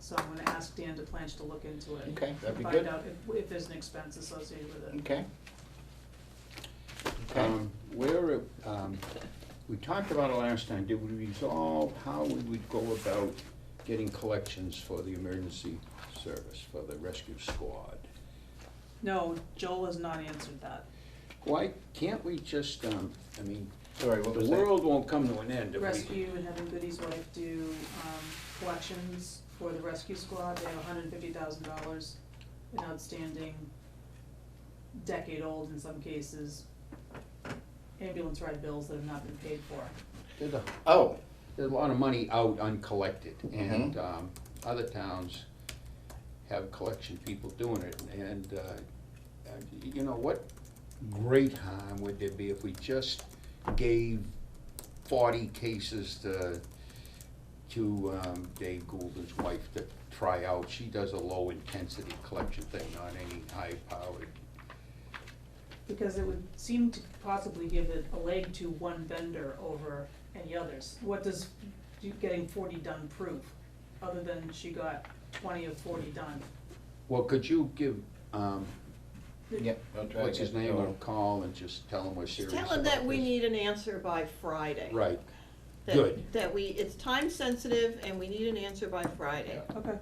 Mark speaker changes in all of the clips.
Speaker 1: So I'm gonna ask Dan DePlanch to look into it.
Speaker 2: Okay, that'd be
Speaker 1: and
Speaker 2: good.
Speaker 1: Find out if, if there's an expense associated with it.
Speaker 2: Okay. Okay.
Speaker 3: Um, Where, um, we talked about it last time, did we resolve how we would go about getting collections for the emergency service, for the rescue squad?
Speaker 1: No, Joel has not answered that.
Speaker 3: Why can't we just, um, I mean,
Speaker 2: Sorry, what
Speaker 3: the
Speaker 2: was that?
Speaker 3: world won't come to an end if we.
Speaker 1: Rescue and having Goody's wife do, um, collections for the rescue squad, they have hundred and fifty thousand dollars in outstanding, decade-old in some cases, ambulance ride bills that have not been paid for.
Speaker 3: There's a,
Speaker 2: Oh,
Speaker 3: there's a lot of money out uncollected,
Speaker 2: Mm-hmm.
Speaker 3: and, um, other towns have collection people doing it, and, uh, uh, you know, what great harm would there be if we just gave forty cases to, to, um, Dave Goulden's wife to try out, she does a low-intensity collection thing, not any high-powered,
Speaker 1: Because it would seem to possibly give it a leg to one vendor over any others. What does you getting forty done prove, other than she got twenty of forty done?
Speaker 3: well, could you give, um,
Speaker 2: yeah. I'll try
Speaker 3: what's
Speaker 2: to
Speaker 3: his
Speaker 2: get
Speaker 3: name, a
Speaker 2: Joel.
Speaker 3: call and just tell him we're serious
Speaker 4: Tell him
Speaker 3: about
Speaker 4: that we
Speaker 3: this?
Speaker 4: need an answer by Friday.
Speaker 3: Right,
Speaker 4: That-
Speaker 3: good.
Speaker 4: That we, it's time sensitive and we need an answer by Friday.
Speaker 1: Okay,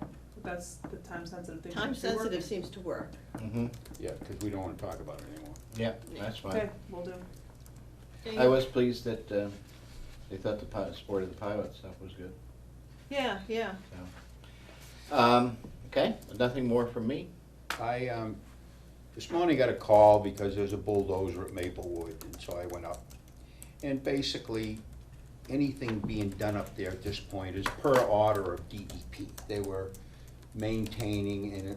Speaker 1: that's the time sensitive thing.
Speaker 4: Time sensitive seems to work.
Speaker 2: Mhm.
Speaker 3: Yeah, because we don't want to talk about it anymore.
Speaker 2: Yeah, that's fine.
Speaker 1: Okay, we will do.
Speaker 2: I was pleased that uh, they thought the pi- sport of the pilot stuff was good,
Speaker 4: Yeah, yeah.
Speaker 2: so. Um, Okay, nothing more from me?
Speaker 3: I, um, this morning got a call because there's a bulldozer at Maplewood, and so I went up. And basically, anything being done up there at this point is per order of DEP. They were maintaining and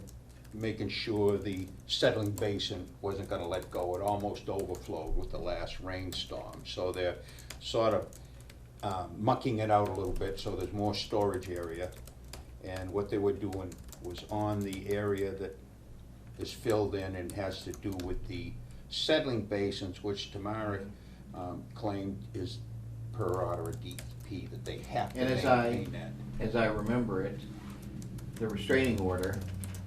Speaker 3: making sure the settling basin wasn't gonna let go. It almost overflowed with the last rainstorm, so they're sort of um, mucking it out a little bit, so there's more storage area. And what they were doing was on the area that is filled in and has to do with the settling basins, which Tamara um, claimed is per order of DEP, that they have to
Speaker 2: And as I-
Speaker 3: maintain that.
Speaker 2: As I remember it, the restraining order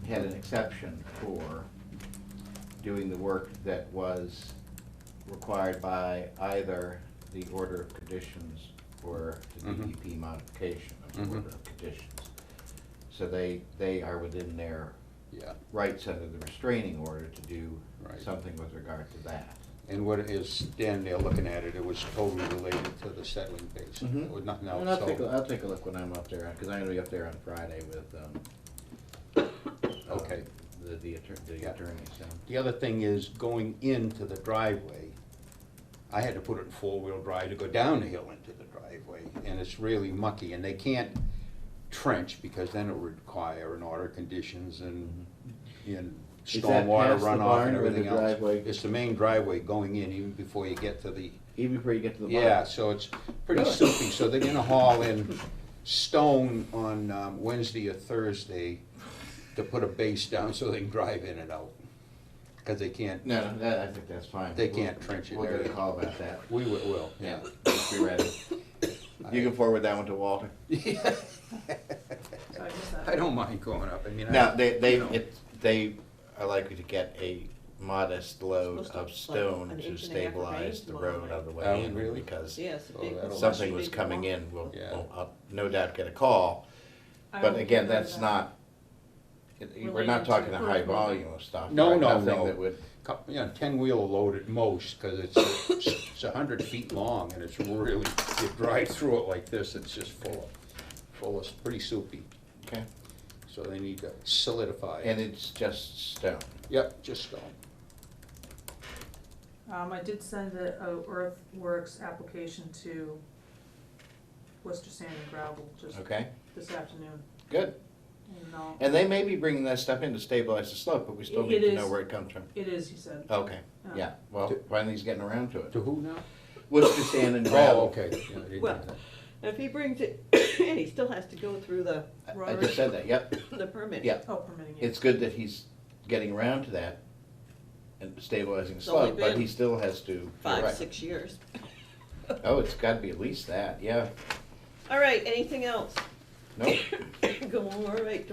Speaker 2: had an exception for doing the work that was required by either the order of conditions or the
Speaker 3: Mhm.
Speaker 2: DEP modification of the
Speaker 3: Mhm.
Speaker 2: order of conditions. So they, they are within their
Speaker 3: Yeah,
Speaker 2: rights under the restraining order to do
Speaker 3: Right.
Speaker 2: something with regard to that.
Speaker 3: and what is, standing there looking at it, it was totally related to the settling basin,
Speaker 2: Mhm.
Speaker 3: or nothing
Speaker 2: And I'll take, a-
Speaker 3: else,
Speaker 2: I'll take a look when I'm up there, because I'm gonna be up there on Friday with, um, uh,
Speaker 3: Okay.
Speaker 2: The, the attorney, the
Speaker 3: Yeah.
Speaker 2: attorney, so.
Speaker 3: The other thing is going into the driveway, I had to put it in four-wheel drive to go down the hill into the driveway, and it's really mucky, and they can't trench, because then it would require an order of conditions and, and
Speaker 2: Is that
Speaker 3: stormwater
Speaker 2: past the
Speaker 3: runoff
Speaker 2: barn
Speaker 3: and
Speaker 2: or the
Speaker 3: everything else.
Speaker 2: driveway?
Speaker 3: It's the main driveway going in, even before you get to the,
Speaker 2: Even before you get to the bottom.
Speaker 3: yeah, so it's pretty
Speaker 2: Really?
Speaker 3: soupy, so they're gonna haul in stone on um, Wednesday or Thursday to put a base down so they can drive in and out, because they can't
Speaker 2: No, no, that, I think that's fine.
Speaker 3: They
Speaker 2: We'll-
Speaker 3: can't trench it
Speaker 2: We'll get a
Speaker 3: there.
Speaker 2: call about that.
Speaker 3: We wi- will, yeah.
Speaker 2: Yeah, just be ready. You can forward that one to Walter.
Speaker 1: So I missed that.
Speaker 3: I don't mind going up, I mean. I-
Speaker 2: Now, they, they,
Speaker 3: you know.
Speaker 2: it, they are likely to get a modest load
Speaker 4: Supposed to,
Speaker 2: of
Speaker 4: like,
Speaker 2: stone
Speaker 4: an
Speaker 2: to
Speaker 4: inch and a half of
Speaker 2: stabilize
Speaker 4: rain
Speaker 2: the
Speaker 4: tomorrow
Speaker 2: road
Speaker 4: night.
Speaker 2: on the
Speaker 3: Oh,
Speaker 2: way in.
Speaker 3: really?
Speaker 2: Because
Speaker 4: Yes.
Speaker 3: Oh,
Speaker 4: big-
Speaker 3: that'll-
Speaker 2: something
Speaker 4: big
Speaker 2: was coming
Speaker 4: wall.
Speaker 2: in, we'll,
Speaker 3: Yeah.
Speaker 2: we'll, I'll no doubt get a call.
Speaker 1: I
Speaker 2: But
Speaker 1: will
Speaker 2: again,
Speaker 1: figure
Speaker 2: that's
Speaker 1: that
Speaker 2: not, it- we're
Speaker 1: Related
Speaker 2: not
Speaker 1: to
Speaker 2: talking a high
Speaker 1: current-
Speaker 2: volume of stuff.
Speaker 3: No,
Speaker 2: right?
Speaker 3: no,
Speaker 2: Nothing
Speaker 3: no.
Speaker 2: that would,
Speaker 3: Cou- You know, ten-wheeler load at most, because it's, it's a hundred feet long, and it's really, you drive through it like this, it's just full of, full of, pretty soupy.
Speaker 2: okay,
Speaker 3: So they need to solidify
Speaker 2: and
Speaker 3: it.
Speaker 2: it's just stone.
Speaker 3: Yep, just stone.
Speaker 1: Um, I did send the uh, earthworks application to Worcester Sand and Gravel just
Speaker 2: Okay,
Speaker 1: this afternoon,
Speaker 2: good.
Speaker 1: and I'll-
Speaker 2: And they may be bringing that stuff in to stabilize the slope, but we still
Speaker 1: It-
Speaker 2: need
Speaker 1: it
Speaker 2: to know
Speaker 1: is-
Speaker 2: where it comes from.
Speaker 1: It is, he said.
Speaker 2: Okay,
Speaker 1: Uh,
Speaker 2: yeah, well, finally he's getting around to it.
Speaker 3: To who now?
Speaker 2: Worcester sand and
Speaker 3: Oh,
Speaker 2: gravel.
Speaker 3: okay. Yeah, I didn't know
Speaker 4: Well-
Speaker 3: that.
Speaker 4: If he brings it, and he still has to go through the,
Speaker 2: I just said that, yep,
Speaker 4: the permit.
Speaker 2: yeah.
Speaker 1: Oh, permitting it.
Speaker 2: It's good that he's getting around to that and stabilizing the
Speaker 4: It's only
Speaker 2: slope, but
Speaker 4: been
Speaker 2: he still has to. you're
Speaker 4: Five,
Speaker 2: right.
Speaker 4: six years.
Speaker 2: Oh, it's gotta be at least that, yeah,
Speaker 4: All right, anything else?
Speaker 2: nope.
Speaker 4: Go, all right,